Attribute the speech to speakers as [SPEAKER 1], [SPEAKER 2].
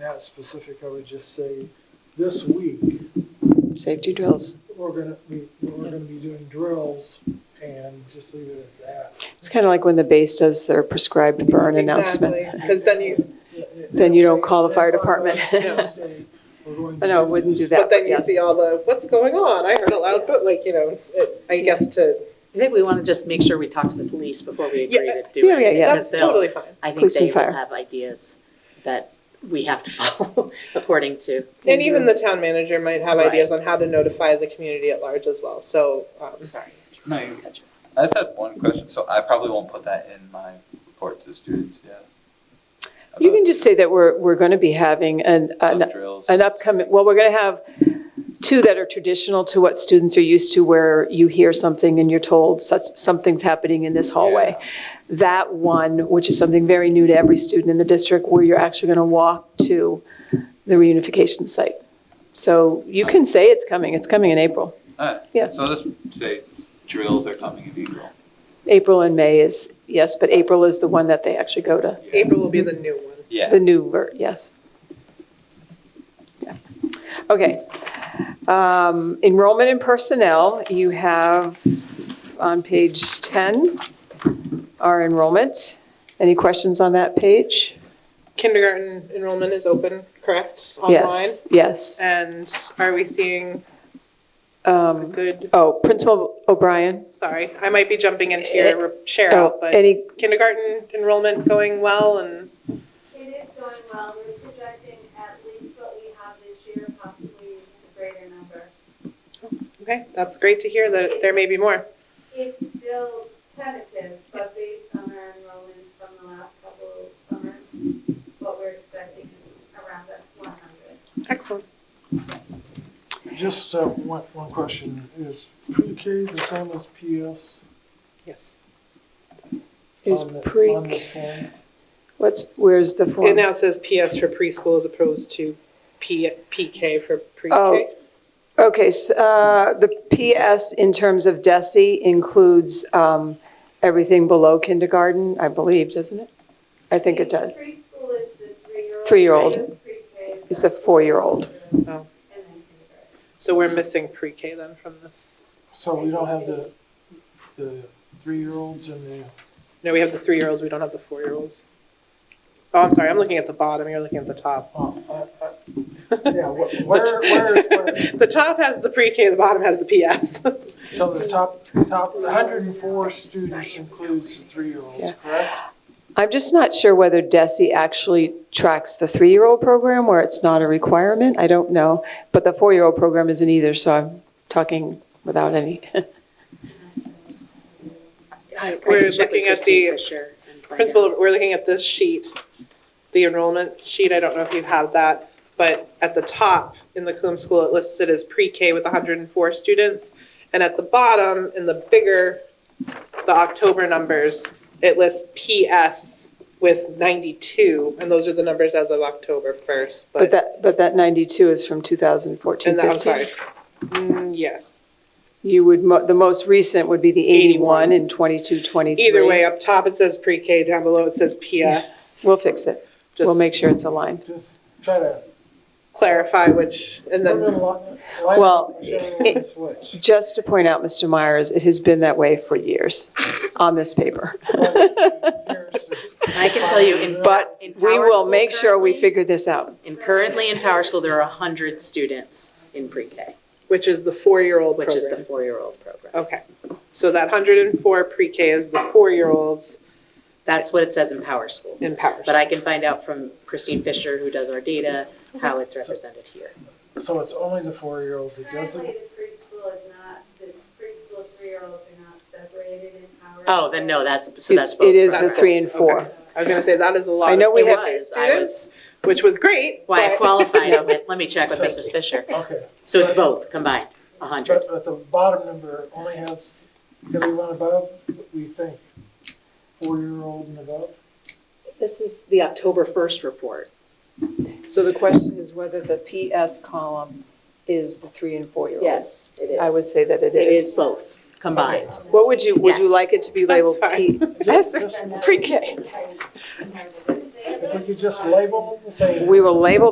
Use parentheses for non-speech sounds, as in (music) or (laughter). [SPEAKER 1] that specific, I would just say, this week,
[SPEAKER 2] Safety drills.
[SPEAKER 1] we're gonna, we, we're gonna be doing drills and just leave it at that.
[SPEAKER 2] It's kind of like when the base does their prescribed burn announcement.
[SPEAKER 3] Because then you,
[SPEAKER 2] Then you don't call the fire department. (laughs)
[SPEAKER 1] We're going to
[SPEAKER 2] No, wouldn't do that.
[SPEAKER 3] but then you
[SPEAKER 2] yes.
[SPEAKER 3] see all the, what's going on? I heard a loud, but like, you know, it- I guess to,
[SPEAKER 4] I think we want to just make sure we talk to the police before we agree
[SPEAKER 3] Yeah.
[SPEAKER 4] to do
[SPEAKER 2] Yeah,
[SPEAKER 4] it.
[SPEAKER 2] yeah, yeah.
[SPEAKER 4] because
[SPEAKER 3] that's
[SPEAKER 4] they'll-
[SPEAKER 3] totally fine.
[SPEAKER 4] I think
[SPEAKER 2] Police and
[SPEAKER 4] they will
[SPEAKER 2] fire.
[SPEAKER 4] have ideas that we have to (laughs) follow according to.
[SPEAKER 2] Mm-hmm.
[SPEAKER 3] And even the town manager might have
[SPEAKER 4] Right.
[SPEAKER 3] ideas on how to notify the community at large as well, so, um, sorry.
[SPEAKER 5] No, you I just had one question, so I probably won't put that in my report to students yet.
[SPEAKER 2] You can just say that we're, we're going to be having an, an
[SPEAKER 5] About drills.
[SPEAKER 2] an upcoming, well, we're going to have two that are traditional to what students are used to, where you hear something and you're told such, something's happening in this hallway. That one, which is something very new to every student in the district, where you're actually going to walk to the reunification site. So you can say it's coming, it's coming in April.
[SPEAKER 5] Alright,
[SPEAKER 2] Yeah.
[SPEAKER 5] so let's say drills are coming in April.
[SPEAKER 2] April and May is, yes, but April is the one that they actually go to,
[SPEAKER 5] Yeah.
[SPEAKER 3] April will be the new one.
[SPEAKER 5] Yeah,
[SPEAKER 2] the new, ver- yes. Yeah. Okay. Um, Enrollment and personnel, you have on page 10, our enrollment. Any questions on that page?
[SPEAKER 3] Kindergarten enrollment is open, correct, online? Uh,
[SPEAKER 2] Yes, yes.
[SPEAKER 3] And are we seeing a
[SPEAKER 2] Um,
[SPEAKER 3] good,
[SPEAKER 2] Oh, Principal O'Brien?
[SPEAKER 3] sorry, I might be jumping into your re- share
[SPEAKER 2] Oh,
[SPEAKER 3] out, but
[SPEAKER 2] Any,
[SPEAKER 3] kindergarten enrollment going well and
[SPEAKER 6] It is going well. We're projecting at least what we have this year, possibly a greater number.
[SPEAKER 3] Okay, that's great to hear that there may be more.
[SPEAKER 6] It's still tentative, but based on our enrollments from the last couple of summers, what we're expecting is around that 100.
[SPEAKER 3] Excellent.
[SPEAKER 1] Just, uh, one, one question, is pre-K the same as PS?
[SPEAKER 3] Yes.
[SPEAKER 2] is
[SPEAKER 1] on the- On
[SPEAKER 2] pre,
[SPEAKER 1] this form?
[SPEAKER 2] what's, where's the
[SPEAKER 3] It
[SPEAKER 2] form?
[SPEAKER 3] now says PS for preschool as opposed to P, PK for pre-K.
[SPEAKER 2] Oh. Okay, s- uh, the PS in terms of DESI includes um, everything below kindergarten, I believe, doesn't it? I think it does.
[SPEAKER 6] Preschool is the three-year-old.
[SPEAKER 2] Three-year-old.
[SPEAKER 6] Pre-K is.
[SPEAKER 2] It's the four-year-old.
[SPEAKER 6] And then
[SPEAKER 3] Oh.
[SPEAKER 6] kindergarten.
[SPEAKER 3] So we're missing pre-K then from this.
[SPEAKER 1] So we don't have the, the three-year-olds and the,
[SPEAKER 3] No, we have the three-year-olds, we don't have the four-year-olds. Oh, I'm sorry, I'm looking at the bottom, you're looking at the top.
[SPEAKER 1] oh, I, I, yeah, wh- where, where, where?
[SPEAKER 3] (laughs) The top has the pre-K, the bottom has the (laughs) PS.
[SPEAKER 1] So the top, top, the hundred and four students includes the three-year-olds,
[SPEAKER 2] Yeah.
[SPEAKER 1] correct?
[SPEAKER 2] I'm just not sure whether DESI actually tracks the three-year-old program where it's not a requirement. I don't know. But the four-year-old program isn't either, so I'm talking without any.
[SPEAKER 4] I- I can
[SPEAKER 3] We're
[SPEAKER 4] check with
[SPEAKER 3] looking at
[SPEAKER 4] Christine
[SPEAKER 3] the
[SPEAKER 4] for sure and find out.
[SPEAKER 3] Principal, we're looking at this sheet, the enrollment sheet, I don't know if you have that, but at the top in the Coombs School, it lists it as pre-K with 104 students, and at the bottom, in the bigger, the October numbers, it lists PS with 92, and those are the numbers as of October 1st,
[SPEAKER 2] But
[SPEAKER 3] but,
[SPEAKER 2] that, but that 92 is from 2014,
[SPEAKER 3] and that, I'm sorry.
[SPEAKER 2] 15.
[SPEAKER 3] Mm, Yes.
[SPEAKER 2] You would, mo- the most recent would be the 81 and 22, 23.
[SPEAKER 3] Either way, uh, up top it says pre-K, down below it says PS.
[SPEAKER 2] We'll fix it. We'll make sure it's aligned.
[SPEAKER 1] Just try to.
[SPEAKER 3] Just Clarify which, and then.
[SPEAKER 2] Well, it-
[SPEAKER 1] Switch.
[SPEAKER 2] Just to point out, Mr. Myers, it has been that way for years on this paper.
[SPEAKER 4] I can tell you in.
[SPEAKER 2] But
[SPEAKER 4] in
[SPEAKER 2] we
[SPEAKER 4] Power
[SPEAKER 2] will
[SPEAKER 4] School
[SPEAKER 2] make sure we
[SPEAKER 4] currently-
[SPEAKER 2] figure this out.
[SPEAKER 4] And currently in Power School, there are 100 students in pre-K,
[SPEAKER 3] Which is the four-year-old
[SPEAKER 4] which is the
[SPEAKER 3] program.
[SPEAKER 4] four-year-old program.
[SPEAKER 3] Okay, so that hundred and four pre-K is the four-year-olds
[SPEAKER 4] That's what it says in Power School.
[SPEAKER 3] in Powers.
[SPEAKER 4] But I can find out from Christine Fisher, who does our data, how it's represented here.
[SPEAKER 1] So it's only the four-year-olds that does
[SPEAKER 6] Currently,
[SPEAKER 1] it?
[SPEAKER 6] the preschool is not, the preschool three-year-olds are not separated in hours.
[SPEAKER 4] Oh, then no, that's, so
[SPEAKER 2] It's-
[SPEAKER 4] that's both.
[SPEAKER 2] It is the
[SPEAKER 4] programs.
[SPEAKER 2] three and four.
[SPEAKER 3] Okay. I was gonna say, that is a lot
[SPEAKER 2] I
[SPEAKER 3] of
[SPEAKER 2] know we
[SPEAKER 4] It
[SPEAKER 2] have-
[SPEAKER 3] pre-K
[SPEAKER 4] was, I
[SPEAKER 3] students,
[SPEAKER 4] was,
[SPEAKER 3] which was great,
[SPEAKER 4] why I
[SPEAKER 3] but (laughs)
[SPEAKER 4] qualified it with, let me check with Mrs. Fisher.
[SPEAKER 1] Okay,
[SPEAKER 4] So it's both combined, 100.
[SPEAKER 1] but, but the bottom number only has everyone above, we think, four-year-old and above?
[SPEAKER 7] This is the October 1st report.
[SPEAKER 2] So the question is whether the PS column is the three and four-year-old?
[SPEAKER 7] Yes, it is.
[SPEAKER 2] I would say that it
[SPEAKER 4] It is
[SPEAKER 2] is.
[SPEAKER 4] both combined.
[SPEAKER 2] What would you, would you
[SPEAKER 4] Yes.
[SPEAKER 2] like it to be labeled
[SPEAKER 3] That's
[SPEAKER 2] P?
[SPEAKER 1] Just-
[SPEAKER 2] Yes, pre-K.
[SPEAKER 1] If we could just label them the same.
[SPEAKER 2] We will label